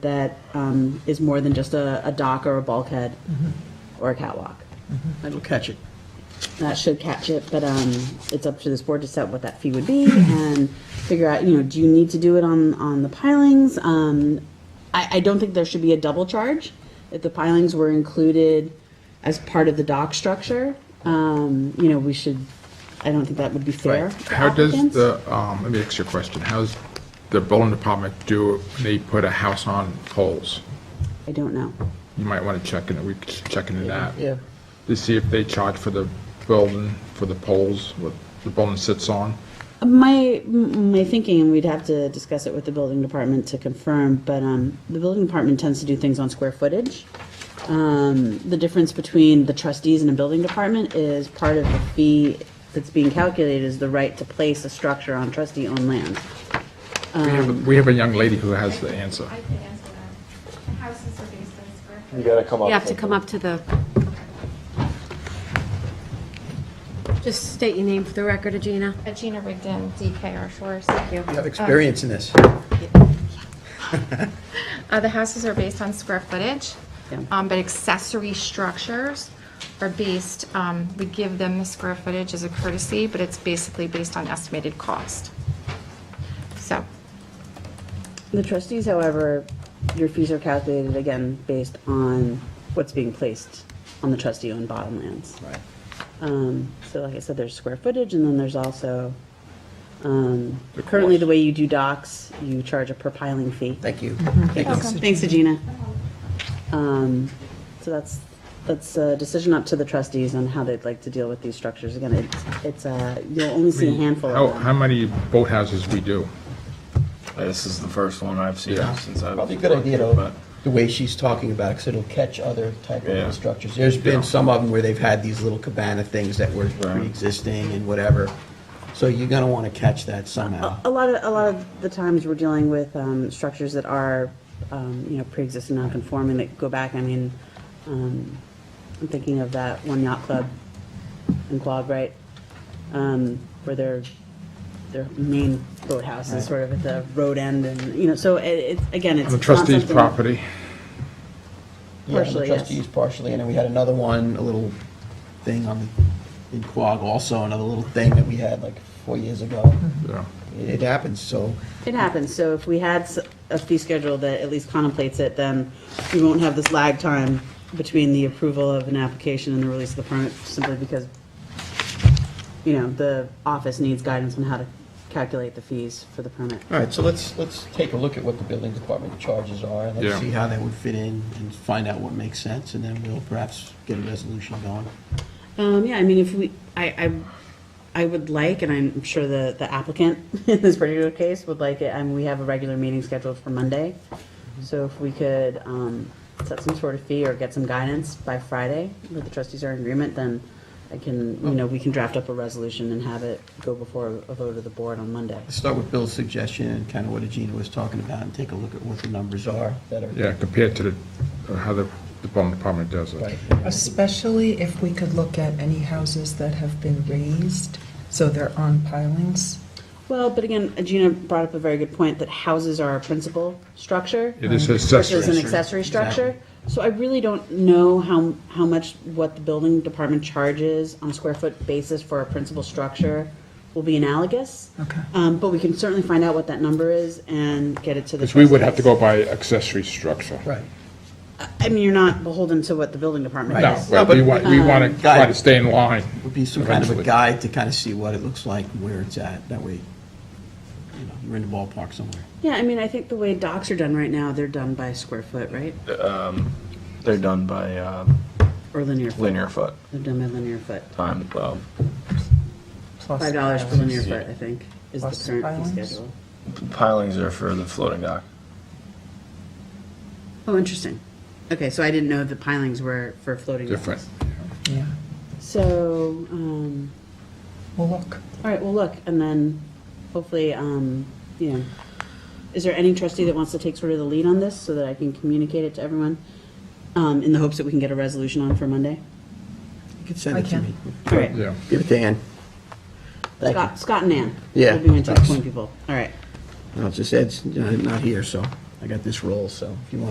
that um, is more than just a, a dock or a bulkhead Mm-hmm. or a catwalk. That'll catch it. That should catch it, but um, it's up to this board to set what that fee would be Mm-hmm. and figure out, you know, do you need to do it on, on the pilings? Um, I, I don't think there should be a double charge if the pilings were included as part of the dock structure. Um, you know, we should, I don't think that would be fair. to How does applicants. the, um, let me ask you a question. How's the building department do it when they put a house on poles? I don't know. You might want to check in, we could check into that. Yeah. To see if they charge for the building, for the poles, what the building sits on. My, m- my thinking, and we'd have to discuss it with the building department to confirm, but, um, the building department tends to do things on square footage. Um, the difference between the trustees and the building department is part of the fee that's being calculated is the right to place a structure on trustee-owned land. We have, a- we have a young lady who has the answer. I can answer that. The houses are based on square You foot. gotta come up. You have to come up to the, just state your name for the record, Agina. Uh, Gina Rigdon, DKR Shores, thank you. You have experience in this. Uh, The houses are based on square footage, Yeah. um, but accessory structures are based, um, we give them the square footage as a courtesy, but it's basically based on estimated cost. So, The trustees, however, your fees are calculated again based on what's being placed on the trustee-owned bottomlands. Right. Um, So like I said, there's square footage, and then there's also, um, currently the way you do docks, you charge a per piling fee. Thank you. Thanks, Agina. Um, So that's, that's a decision up to the trustees on how they'd like to deal with these structures. Again, it's- it's, uh, you'll only see a handful How, of how them. many boathouses we do? This is the first one I've seen Yeah. since I've. Probably a good idea, though, the way she's talking about it, because it'll catch other type Yeah. of structures. There's Yeah. been some of them where they've had these little cabana things that were Right. pre-existing and whatever. So you're gonna want to catch that somehow. A lot of, a lot of the times we're dealing with um, structures that are, um, you know, pre-existing non-conforming that go back, I mean, um, I'm thinking of that one yacht club in Quogue, right? Um, Where their, their main boathouse is sort of at the road end and, you know, so it, it's, again, it's. On the it's not trustee's something- property, Yeah, and Partially, the yes. trustees partially, and then we had another one, a little thing on, in Quogue also, another little thing that we had like four years ago. yeah. It it happens, so It happens, so if we had s- a fee schedule that at least contemplates it, then we won't have this lag time between the approval of an application and the release of the permit, simply because, you know, the office needs guidance on how to calculate the fees for the permit. All right, so let's, let's take a look at what the building department charges are, and Yeah. let's see how that would fit in, and find out what makes sense, and then we'll perhaps get a resolution going. Um, yeah, I mean, if we, I, I, I would like, and I'm sure the, the applicant in this particular case would like it, and we have a regular meeting scheduled for Monday. So if we could, um, set some sort of fee or get some guidance by Friday, where the trustees are in agreement, then I can, you know, we can draft up a resolution and have it go before a vote of the board on Monday. Let's start with Bill's suggestion, and kind of what Agina was talking about, and take a look at what the numbers are that are. yeah, compared to the, how the, the building department does it. Right. Especially if we could look at any houses that have been raised, so they're on pilings. Well, but again, Gina brought up a very good point, that houses are a principal structure. It is versus Um, an accessory. accessory structure. Exactly. So I really don't know how, how much, what the building department charges on a square foot basis for a principal structure will be analogous. Okay. Um, but we can certainly find out what that number is and get it to the. Because we would have to go trustees. by accessory structure. Right. I mean, you're not beholden to what the building department Right. No, does. No, but but- we want, we want to try to stay in line. Would be some kind of a Eventually. guide to kind of see what it looks like, and where it's at, that way, you know, you're in the ballpark somewhere. Yeah, I mean, I think the way docks are done right now, they're done by square foot, right? They're done by um, Or linear foot. linear foot They're done by linear foot. time, well, plus Five dollars per pilings. linear foot, I think, is Plus the current fee pilings. schedule. pilings are for the floating dock. Oh, interesting. Okay, so I didn't know the pilings were for floating. docks. Different. Yeah, So, um, well, look, all right, well, look, and then hopefully, um, you know, is there any trustee that wants to take sort of the lead on this so that I can communicate it to everyone? Um, in the hopes that we can get a resolution on for Monday? You could send I it to can. me. All right, Yeah. Give it to Ann. Thank you. Scott, Scott and Ann. Yeah, We'll be my two thanks. point people, all right. No, it's just Ed's uh, not here, so I got this role, so if you want